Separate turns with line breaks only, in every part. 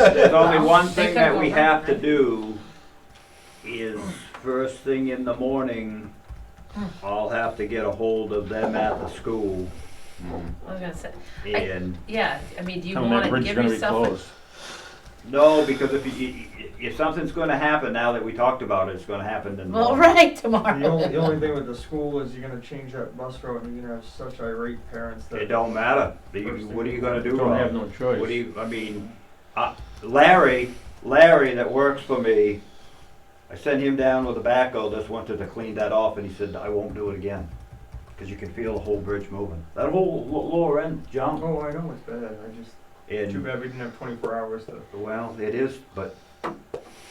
There's only one
They
thing
could
that
go
we
wrong,
have to
right?
do is first thing in the morning, I'll have to get a hold of them at the school
I was gonna say,
and,
yeah, I mean, do you
Tell them that
wanna
bridge is
give
gonna be
yourself a
closed.
no, because if you, if something's gonna happen now that we talked about it, it's gonna happen in the
Well,
morning.
right,
The only, the
tomorrow.
only thing with the school is you're gonna change that bus route and you're gonna have such irate parents
It
that.
don't matter. You- What are you gonna do?
Don't
Rob?
have no choice.
What do you, I mean, uh, Larry, Larry that works for me, I sent him down with a backhoe this winter to clean that off and he said, I won't do it again. Cause you can feel the whole bridge moving. That whole lo- lower end jump
Oh, I know, it's bad, I just, too
and,
bad we didn't have twenty-four hours to.
well, it is, but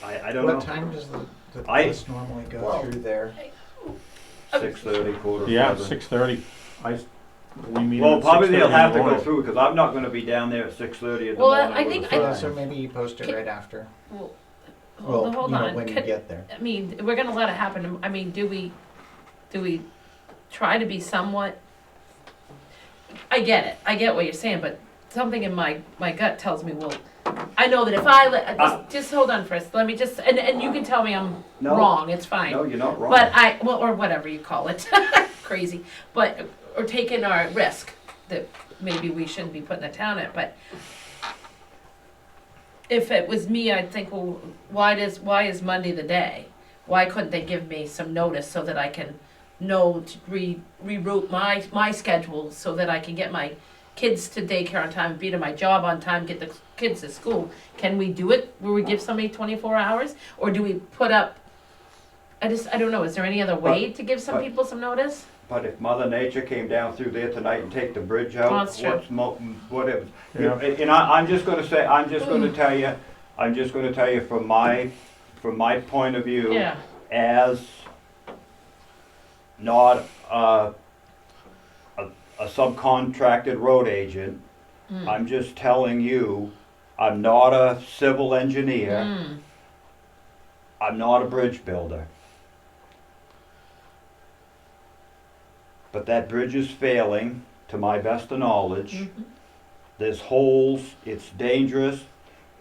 I, I don't
What
know.
time does the, the
I-
bus normally go
Well-
through there?
Six thirty, quarter to
Yeah,
seven.
six thirty. I, s- we meet
Well,
at
probably
six thirty in
they'll
the
have to go
morning.
through, cause I'm not gonna be down there at six thirty in the
Well, I-
morning.
I
with a
think I-
Uh,
sign.
so maybe you post it right after.
Well,
Well,
Hold hold
you know,
on,
when you
Could-
get there.
I mean, we're gonna let it happen, I mean, do we, do we try to be somewhat? I get it, I get what you're saying, but something in my, my gut tells me, well, I know that if I, let-
Uh.
Ah.
just, just hold on first, let me just, and, and you can tell me I'm
No.
wrong, it's fine.
No, you're not wrong.
But I, well, or whatever you call it, crazy, but, or taking our risk that maybe we shouldn't be putting the town at, but if it was me, I'd think, well, why does, why is Monday the day? Why couldn't they give me some notice so that I can know to re, reroute my, my schedule so that I can get my kids to daycare on time, be to my job on time, get the kids to school? Can we do it? Will we give somebody twenty-four hours? Or do we put up I just, I don't know, is there any other way to give some
but-
people some notice?
But if Mother Nature came down through there tonight and take the bridge out,
Well, that's true.
what's mo- whatever.
Yeah.
And and I, I'm just gonna say, I'm just gonna tell you, I'm just gonna tell you from my, from my point of view.
Yeah,
As not, uh, a, a subcontracted road agent,
Hmm.
I'm just telling you, I'm not a civil engineer,
Mm.
I'm not a bridge builder. But that bridge is failing, to my best of knowledge.
Mm. Hmm.
There's holes, it's dangerous.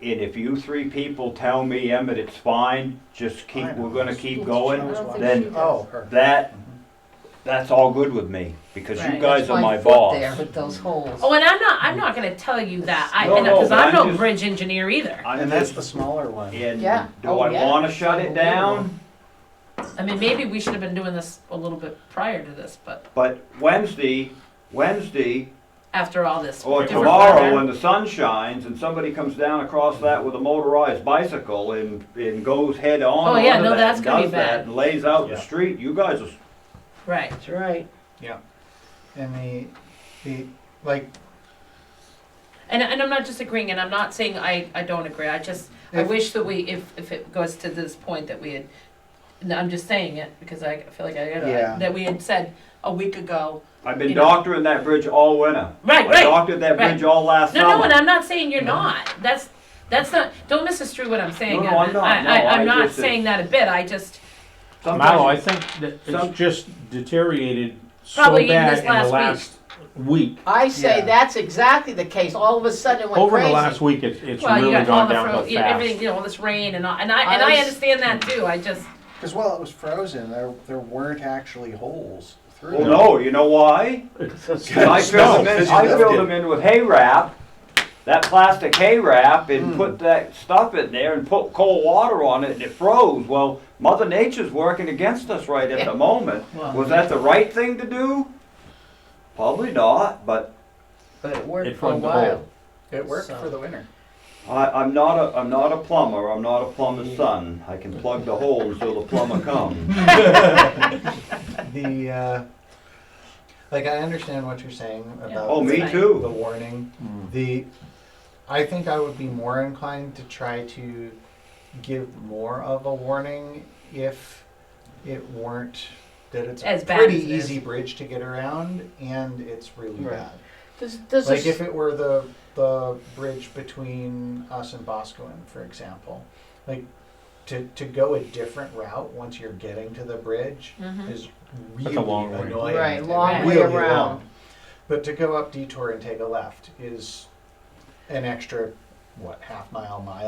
And if you three people tell me, Emmett, it's fine, just keep, we're gonna keep going, then
Oh, her.
that, that's all good with me, because you
Right.
guys are my boss.
with those holes.
Oh, and I'm not, I'm not gonna tell you that, I,
No,
and,
no,
cause
but
I'm
I'm
no
just-
bridge engineer either.
I'm
And that's the
just-
smaller one.
And
Yeah.
do
Oh,
I
yeah.
wanna shut it down?
I mean, maybe we should have been doing this a little bit prior to this, but
But Wednesday, Wednesday,
after all this.
Or
different
Oh, tomorrow,
weather-
when the sun shines and somebody comes down across that with a motorized bicycle and, and goes head on
Oh, yeah,
onto
no,
that
that's
and
gonna be
does that
bad.
And lays out the
Yeah.
street, you guys, are-
Right,
That's right.
And the, the, like,
and, and I'm not disagreeing, and I'm not saying I, I don't agree, I just, I
If-
wish that we, if, if it goes to this point that we had, no, I'm just saying it, because I feel like I
Yeah.
gotta, that we had said a week ago.
I've been
You know.
doctoring that bridge all winter.
Right,
I
right.
doctored that
right.
bridge all last
No, no, and
summer.
I'm not saying you're not. That's that's not. Don't misconstrue what I'm saying.
No, no, I'm not.
I,
No,
I,
I
am not
just-
saying that a bit. I just
Malo, I
Sometimes,
think that
Some-
it's just deteriorated so
Probably even
bad
this
in
last
the last week.
I say
Yeah.
that's exactly the case. All of a sudden it went
Over
crazy.
the last week, it's, it's
well, you
really
got all
gone
the
down
fro-
real
you- everything,
fast.
you know, all this rain and all, and I and
I
I,
was-
understand that too. I just
because while it was frozen, there, there weren't actually holes through
well,
it.
Oh, no, you know why? And I filled them in, I filled them in with hay wrap, that plastic hay wrap, and put that stuff in there and put cold water on it, and it froze. Well, Mother Nature's working against us right at the moment.
Well-
Was that the right thing to do? Probably not, but
But it worked
It
for a
plugged the
while.
hole.
It worked
So-
for the winter.
I, I'm not a, I'm not a plumber, I'm not a plumber's son. I can plug the hole until the plumber comes.
The, uh, like, I understand what you're saying about.
Oh, me
Right.
the
too.
warning. The, I think I would be more inclined to try to give more of a warning if it weren't that it's
As
a
bad
pretty
as it
easy
is.
bridge to get around and it's really
Right.
bad.
Does, does
Like
this,
if it were the the bridge between us and Boscoon, for example, like to to go a different route once you're getting to the bridge
Mhm.
is
That's
really
a long way.
annoying.
Right, long way
Really
around.
long. But to go up detour and take a left is an extra what half mile, mile.